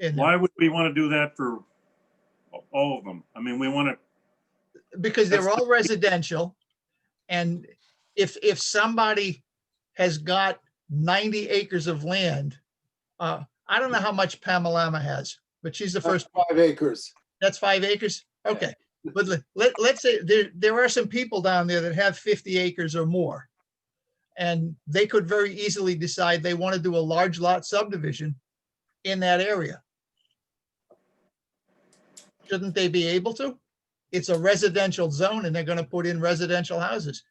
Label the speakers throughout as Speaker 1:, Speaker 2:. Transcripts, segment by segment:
Speaker 1: And
Speaker 2: Why would we want to do that for all of them? I mean, we want to,
Speaker 1: because they're
Speaker 2: That's-
Speaker 1: all residential. And if, if somebody has got 90 acres of land, uh, I don't know how much Pamalama has, but she's
Speaker 2: Uh,
Speaker 1: the first,
Speaker 3: First five acres.
Speaker 1: that's five acres?
Speaker 3: Yeah.
Speaker 1: Okay. But let- let, let's say there, there are some people down there that have 50 acres or more. And they could very easily decide they want to do a large lot subdivision in that area. Shouldn't they be able to? It's a residential zone and they're going to put in residential houses.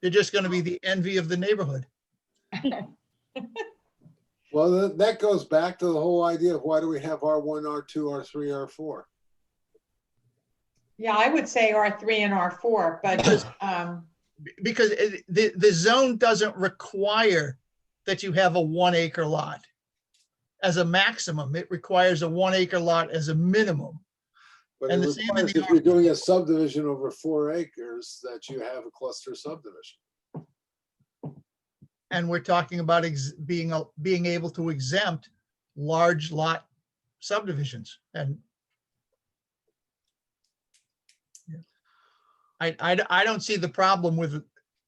Speaker 1: They're just going to be the envy of the neighborhood.
Speaker 3: Well, tha- that goes back to the whole idea of why do we have R one, R two, R three, R four?
Speaker 4: Yeah, I would say R three and R four, but, um,
Speaker 1: because it- the, the zone doesn't require that you have a one acre lot as a maximum. It requires a one acre lot as a minimum.
Speaker 3: But
Speaker 1: And
Speaker 3: it
Speaker 1: the same in
Speaker 3: requires
Speaker 1: the
Speaker 3: if you're doing a subdivision over four acres, that you have a cluster subdivision.
Speaker 1: And we're talking about ex- being, a- being able to exempt large lot subdivisions and Yeah. I, I, d- I don't see the problem with,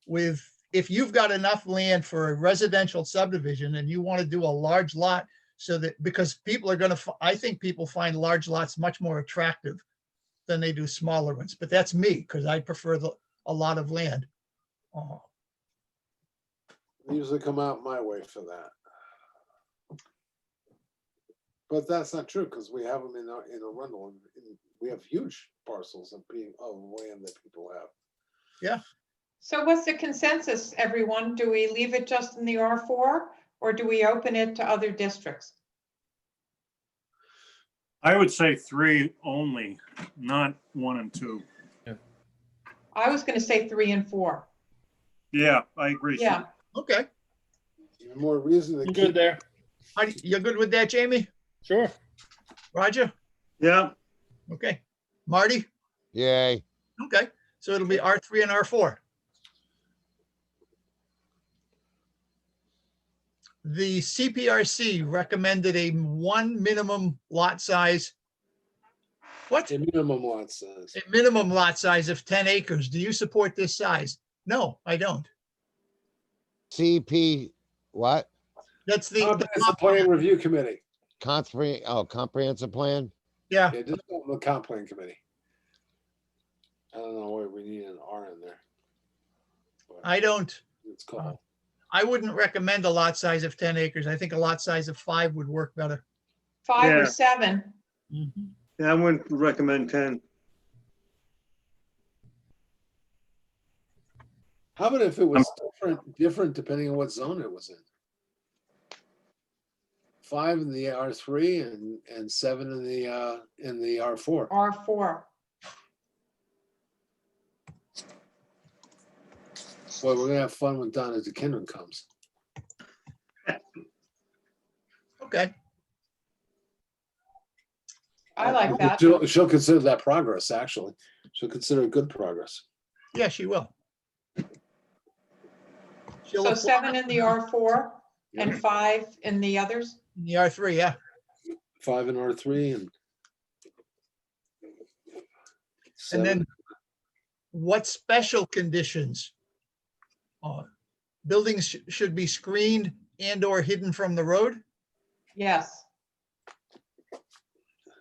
Speaker 1: with, if you've got enough land for a residential subdivision and you want to do a large lot so that, because people are gonna, fi- I think people find large lots much more attractive than they do smaller ones, but that's me, because I prefer the, a lot of land. Uh,
Speaker 3: They Usually come out my way for that. But that's not true, because we have them in, our- in Arundel, and and we have huge parcels of being, of land that people have.
Speaker 4: so what's the consensus, everyone? Do we leave it just in the R four? Or do we open it to other districts?
Speaker 2: I would say three only, not one and two.
Speaker 4: I was gonna say three and four.
Speaker 2: Yeah, I agree.
Speaker 4: Yeah,
Speaker 1: Okay,
Speaker 3: Even more reason to
Speaker 5: I'm
Speaker 3: keep
Speaker 5: good there.
Speaker 1: How do- you're good with that, Jamie?
Speaker 5: Sure.
Speaker 1: Roger?
Speaker 2: Yeah,
Speaker 1: Okay. Marty?
Speaker 6: Yay.
Speaker 1: Okay, so it'll be R3 and R4. The CPRC recommended a one minimum lot size. What?
Speaker 3: a minimum lot size.
Speaker 1: A minimum lot size of 10 acres. Do you support this size? No, I don't.
Speaker 6: CP, what?
Speaker 1: That's the-
Speaker 3: Comprehensive Plan
Speaker 1: the,
Speaker 3: Review Committee.
Speaker 6: Compre, oh, comprehensive plan?
Speaker 1: yeah,
Speaker 3: Yeah, just call it the comp plan committee. I don't know why we need an R in there. But
Speaker 1: I don't.
Speaker 3: It's
Speaker 1: Uh-huh.
Speaker 3: called,
Speaker 1: I wouldn't recommend a lot size of 10 acres. I think a lot size of five would work better.
Speaker 4: five
Speaker 7: Yeah.
Speaker 4: or seven.
Speaker 1: Mm-hmm.
Speaker 7: Yeah, I wouldn't recommend ten.
Speaker 3: how about if it was different, different depending on what zone it was in? Five in the R three and, and seven in the, uh, in the R four.
Speaker 4: R four.
Speaker 3: Boy, we're gonna have fun when Donna DeKinnon comes.
Speaker 1: Okay,
Speaker 4: I like that.
Speaker 3: She'll, she'll consider that progress, actually. She'll consider it good progress.
Speaker 1: yeah, she will. She'll
Speaker 4: So
Speaker 1: apply
Speaker 4: seven in the R four and five in the others?
Speaker 1: in The R3, yeah.
Speaker 3: Five in R three and.
Speaker 1: And
Speaker 3: seven.
Speaker 1: then what special conditions? Uh, Buildings sh- should be screened and or hidden from the road?
Speaker 4: Yes.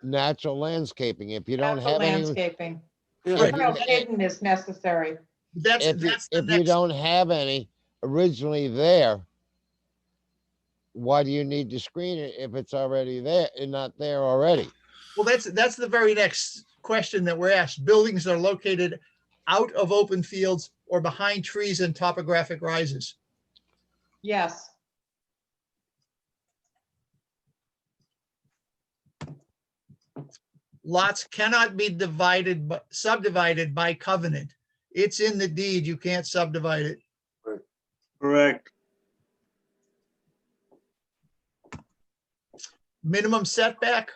Speaker 6: Natural landscaping. If you don't
Speaker 4: That's the
Speaker 6: have any,
Speaker 4: landscaping.
Speaker 3: Yeah.
Speaker 6: Right.
Speaker 4: Well, hidden is necessary.
Speaker 1: That's,
Speaker 6: if, you-
Speaker 1: that's the
Speaker 6: if you
Speaker 1: next,
Speaker 6: don't have any originally there, why do you need to screen it if it's already there and not there already?
Speaker 1: well, that's, that's the very next question that we're asked. Buildings are located out of open fields or behind trees and topographic rises.
Speaker 4: Yes.
Speaker 1: Lots cannot be divided, bu- subdivided by covenant. It's in the deed. You can't subdivide it.
Speaker 7: Correct.
Speaker 1: Minimum setback,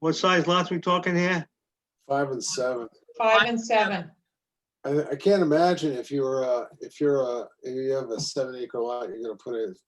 Speaker 7: What size lots we talking here?
Speaker 3: Five and seven.
Speaker 4: Five and seven.
Speaker 3: I, I can't imagine if you're, uh, if you're, uh, if you have a seven acre lot, you're gonna put a